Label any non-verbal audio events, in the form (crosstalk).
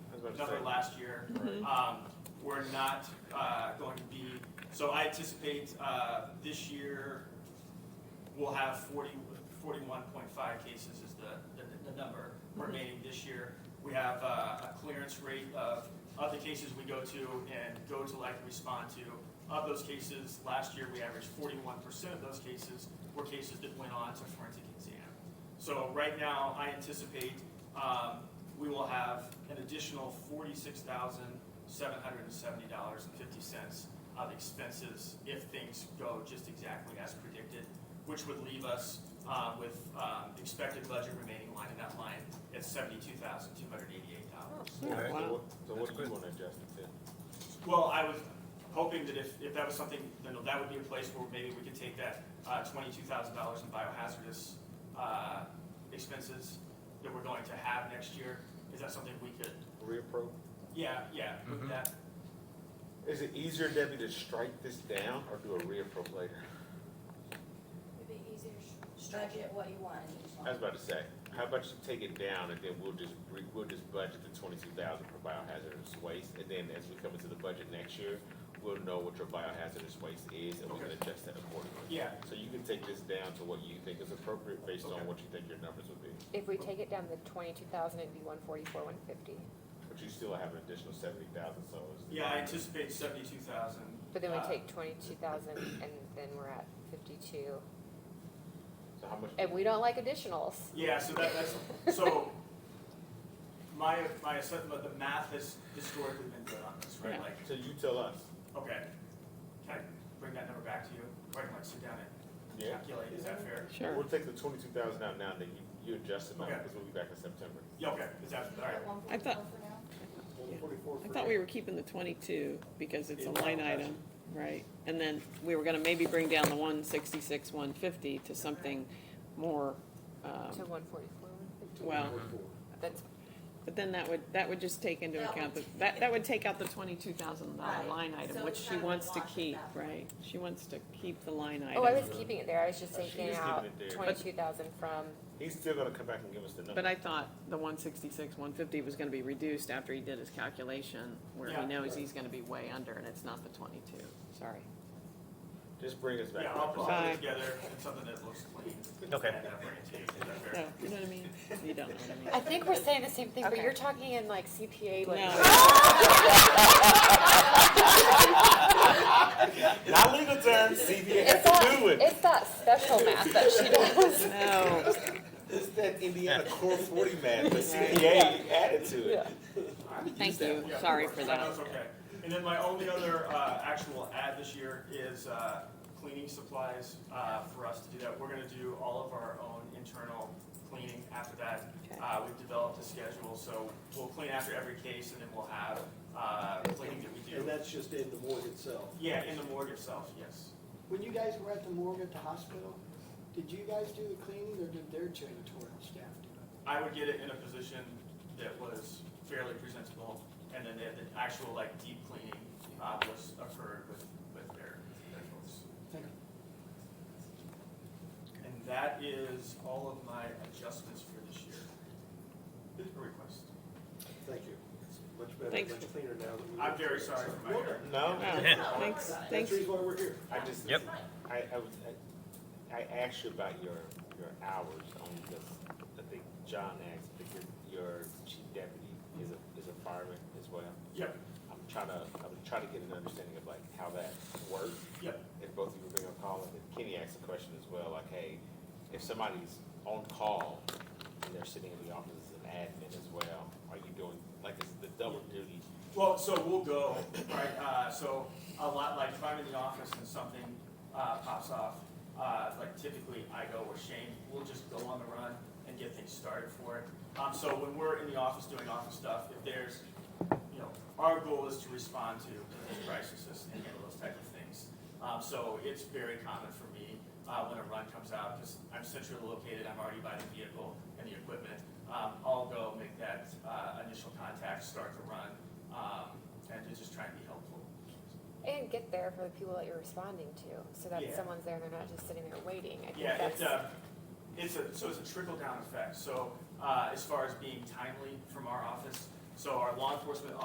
was done for last year. Um, We're not uh, going to be, so I anticipate uh, this year, we'll have 40, 41.5 cases is the, the- the number remaining this year. We have uh, a clearance rate of, of the cases we go to and go to like respond to. Of those cases, last year, we averaged 41% of those cases were cases that went on to forensic exam. So right now, I anticipate um, we will have an additional forty-six thousand, seven hundred and seventy dollars and fifty cents of expenses if things go just exactly as predicted, which would leave us uh, with um, expected budget remaining line in that line at seventy-two thousand, two hundred and eighty-eight dollars. Okay, so Wow. what, so what do you wanna adjust it to? Well, I was hoping that if, if that was something, then that would be a place where maybe we could take that uh, twenty-two thousand dollars in biohazardous uh, expenses that we're going to have next year. Is that something we could, Reappro? yeah, yeah, with that? Is it easier, Debbie, to strike this down or do a reappro later? It'd be easier to budget what you want in each I was line. about to say, how about you take it down and then we'll just, re- we'll just budget the twenty-two thousand for biohazardous waste? And then as we come into the budget next year, we'll know what your biohazardous waste is and we can Okay. adjust that accordingly. Yeah, So you can take this down to what you think is appropriate based Okay. on what you think your numbers will be. If we take it down to twenty-two thousand, it'd be one forty-four, one fifty. But you still have an additional seventy thousand, so it's. yeah, I anticipate seventy-two thousand. But then we take twenty-two thousand and then we're at fifty-two. So how much? And we don't like additionals. Yeah, so that, that's, so, my, my assessment, the math has historically been good on this, right? Like, So you tell us. okay, can I bring that number back to you? Or I can like sit down and Yeah. calculate, is that fair? We'll take the twenty-two thousand out now, and then you, you adjust the number, Okay. because we'll be back in September. Yeah, okay, is that, all right. At I thought- 144 for now? I thought we were keeping the twenty-two because it's a line item, right? And then we were gonna maybe bring down the one sixty-six, one fifty to something more, To um, one forty-four, one fifty. well, That's, but then that would, that would just take into That account, would the- that, that would take out the twenty-two thousand dollar Right. line item, So which it's she kind of a wants to wash at keep, that point. right? She wants to keep the line oh, I item, was keeping it there, I was just Oh, she taking just out keeping it there. twenty-two thousand from, He's still gonna come back and give us the but number. I thought the one sixty-six, one fifty was gonna be reduced after he did his calculation, where Yeah. he knows he's gonna be way under, and it's not the twenty-two, sorry. Just bring us back. Yeah, I'll put Bye. it together, it's something that looks clean. Okay. And I'll bring it to you. Is that fair? No, you know what I mean? You don't know what I mean. I think we're saying the same thing, but Okay. you're talking in like CPA language. No, Not legal terms, CBA It's that, it's that special math that she does. (laughs) no. It's that Indiana Core forty man, the CBA added to it. Thank you. Yeah, Sorry of for course. that. No, it's okay. And then my only other uh, actual ad this year is uh, cleaning supplies uh, for us to do that. We're gonna do all of our own internal cleaning after that. Okay. Uh, We've developed a schedule, so we'll clean after every case and then we'll have uh, cleaning that we And do. that's just in the morgue itself. Yeah, in the morgue itself, yes. When you guys were at the morgue at the hospital, did you guys do the cleaning or did their janitorial staff do it? I would get it in a position that was fairly presentable, and then the, the actual like deep cleaning, uh, was occurred with, with their, their folks. Thank you. And that is all of my adjustments for this year. Or request. Thank you. It's Much better, Thanks. much cleaner now than we I'm were. very sorry for my error. No, Oh. Wow. Thanks, That's thanks. the reason why we're here. I just. Yep. I, I was, I, I asked you about your, your hours only because I think John asked, because your chief deputy is a, is a fireman as well. Yep, I'm trying to, I'm trying to get an understanding of like how that works. yep, if both of you were being on call, and then Kenny asked a question as well, like, hey, if somebody's on call and they're sitting in the office as an admin as well, are you doing, like, is the double duty? well, so we'll go, right, uh, so a lot, like if I'm in the office and something, uh, pops off, uh, like typically I go or Shane, we'll just go on the run and get things started for it. Um, so when we're in the office doing office stuff, if there's, you know, our goal is to respond to those crises and handle those type of things. Um, so it's very common for me, uh, when a run comes out, because I'm centrally located, I'm already by the vehicle and the equipment. Um, I'll go make that, uh, initial contact, start the run, um, and to just try and be helpful. And get there for the people that you're responding to, so that Yeah. someone's there, and they're not just sitting there waiting. I think Yeah, that's. it's a, uh, it's a, so it's a trickle down effect. So uh, as far as being timely from our office, So our law enforcement